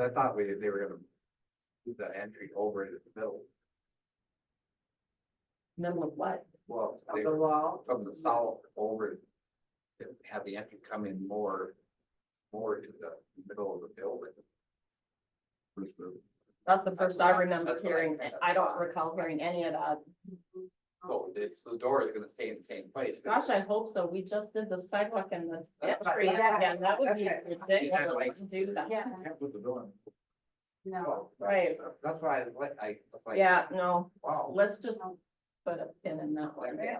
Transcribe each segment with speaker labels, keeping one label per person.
Speaker 1: I thought we, they were gonna do the entry over into the middle,
Speaker 2: middle of what?
Speaker 1: well,
Speaker 2: Of
Speaker 1: they
Speaker 2: the
Speaker 1: were
Speaker 2: wall?
Speaker 1: from the south over. and Have the entry come in more, more to the middle of the building. First move.
Speaker 2: That's the first I remember
Speaker 1: That's what I-
Speaker 2: hearing.
Speaker 1: that's what I-
Speaker 2: I don't recall hearing any of that.
Speaker 1: So it's, the door is gonna stay in the same place.
Speaker 2: Gosh, I hope so. We just did the sidewalk and the
Speaker 1: Yeah,
Speaker 2: entry
Speaker 3: yeah.
Speaker 2: again. That would be
Speaker 1: Okay.
Speaker 2: ridiculous to do that.
Speaker 3: Yeah,
Speaker 1: Can't put the building. Oh,
Speaker 3: no,
Speaker 2: Right.
Speaker 1: That's why I, like- I was like.
Speaker 2: Yeah, no,
Speaker 1: Wow.
Speaker 2: let's just put a pin in that one. I think,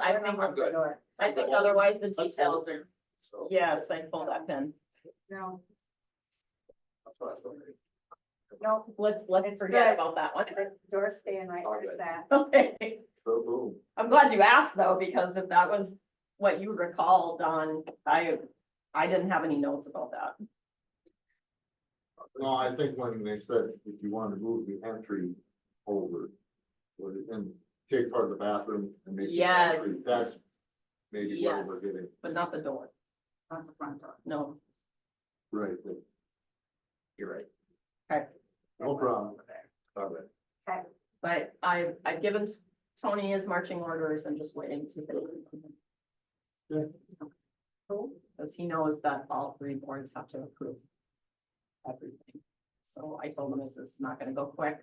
Speaker 1: I'm good.
Speaker 2: I think otherwise the details are,
Speaker 1: So-
Speaker 2: yes, I pull that pin.
Speaker 3: no,
Speaker 1: That's what I was wondering.
Speaker 3: no,
Speaker 2: Let's, let's
Speaker 3: It's
Speaker 2: forget
Speaker 3: good.
Speaker 2: about that one.
Speaker 3: door's staying right where it's at.
Speaker 2: Okay.
Speaker 1: So boom.
Speaker 2: I'm glad you asked though, because if that was what you recall, Don, I, I didn't have any notes about that.
Speaker 4: No, I think when they said if you want to move the entry over, would it- and take part of the bathroom and make. the
Speaker 2: Yes.
Speaker 4: entry, That's maybe what we're
Speaker 2: Yes.
Speaker 4: getting,
Speaker 2: But not the door,
Speaker 3: Not the front door.
Speaker 2: no.
Speaker 4: right,
Speaker 1: You're right.
Speaker 4: no problem.
Speaker 1: All right.
Speaker 2: But I, I've given Tony his marching orders, I'm just waiting to.
Speaker 4: Yeah.
Speaker 2: Cause he knows that all three boards have to approve. Everything, so I told him this is not gonna go quick,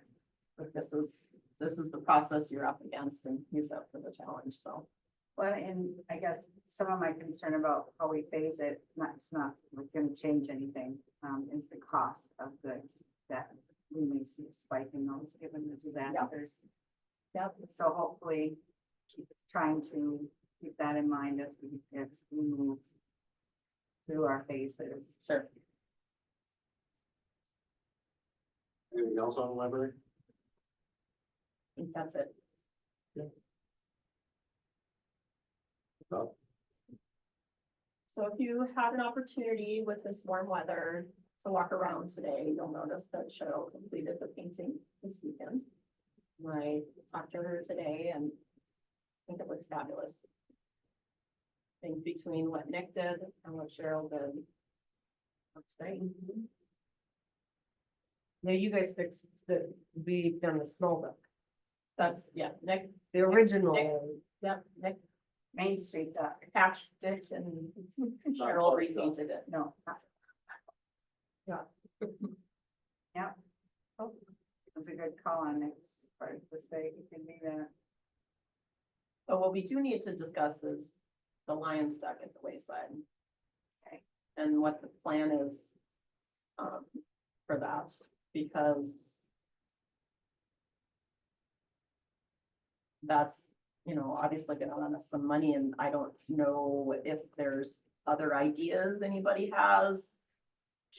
Speaker 2: but this is, this is the process you're up against and he's up for the challenge, so.
Speaker 3: Well, and I guess some of my concern about how we phase it, not, it's not like, gonna change anything, um, is the cost of goods that we may see a spike in those given the disasters.
Speaker 2: Yep.
Speaker 3: So hopefully, keep trying to keep that in mind as we, as we move through our phases.
Speaker 2: Sure.
Speaker 4: Anything else on the library?
Speaker 2: I think that's it.
Speaker 4: Yeah.
Speaker 2: So if you had an opportunity with this warm weather to walk around today, you'll notice that Cheryl completed the painting this weekend. I talked to her today and I think it looks fabulous. I think between what Nick did and what Cheryl did. Looks great.
Speaker 5: Now you guys fixed the, we've done the small book,
Speaker 2: That's, yeah, Nick,
Speaker 5: the original.
Speaker 2: yeah, Nick
Speaker 3: Main Street dock,
Speaker 2: patched it and Cheryl repainted it.
Speaker 3: no. not-
Speaker 5: Yeah.
Speaker 3: Yeah. Oh, That's a good call on next part of this day, you can do that.
Speaker 2: But what we do need to discuss is the lion stuck at the wayside.
Speaker 3: Okay.
Speaker 2: And what the plan is um, for that, because that's, you know, obviously gonna run us some money and I don't know if there's other ideas anybody has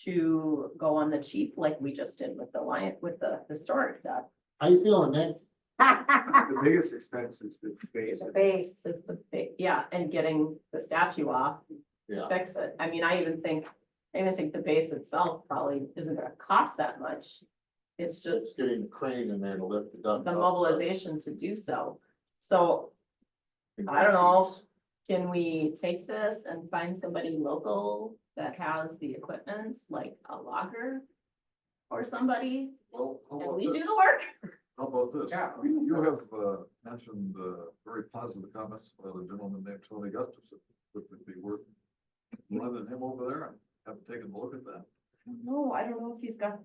Speaker 2: to go on the cheap like we just did with the lion, with the historic duck.
Speaker 4: How you feeling, Nick?
Speaker 1: The biggest expense is the base.
Speaker 3: The base.
Speaker 2: This is the, big- yeah, and getting the statue off
Speaker 4: Yeah,
Speaker 2: fix it. I mean, I even think, I even think the base itself probably isn't gonna cost that much. It's
Speaker 4: it's
Speaker 2: just
Speaker 4: getting the crane in there to lift the duck.
Speaker 2: the
Speaker 4: up.
Speaker 2: mobilization to do so. So I don't know, can we take this and find somebody local that has the equipment, like a logger? Or somebody,
Speaker 6: Well, how
Speaker 2: and
Speaker 6: about
Speaker 2: we do
Speaker 6: this?
Speaker 2: the work?
Speaker 6: How about this?
Speaker 1: Yeah.
Speaker 6: You you have uh, mentioned uh, very positive comments about a gentleman named Tony Gustafson, which would be worth running him over there and have taken a look at that.
Speaker 2: No, I don't know if he's got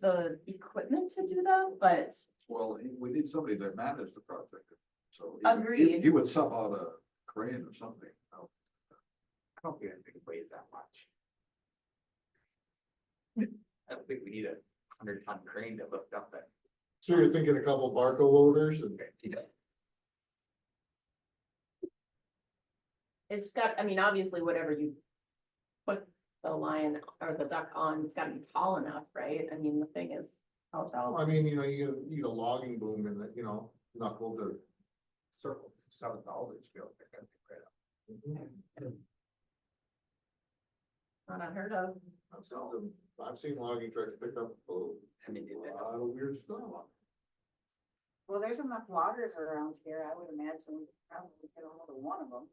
Speaker 2: the equipment to do that, but
Speaker 6: Well, he- we need somebody that managed the project, so. he would- he-
Speaker 2: Agreed.
Speaker 6: He would sub out a crane or something. Oh,
Speaker 1: I don't think it weighs that much. I don't think we need a hundred ton crane to lift up that.
Speaker 4: So you're thinking a couple barco loaders and
Speaker 2: It's got, I mean, obviously, whatever you put the lion or the duck on, it's gotta be tall enough, right? I mean, the thing is, how
Speaker 4: Well,
Speaker 2: tall?
Speaker 4: I mean, you know, you need a logging boom and that, you know, knuckle to.
Speaker 1: circle, seven dollars, you know, they're gonna be great.
Speaker 2: Mm-hmm. Not unheard of.
Speaker 4: I've seen them- I've seen logging trucks pick up a lot
Speaker 1: I mean, they- they-
Speaker 4: of weird stuff.
Speaker 3: Well, there's enough loggers around here, I would imagine, we could probably get a hold of one of them.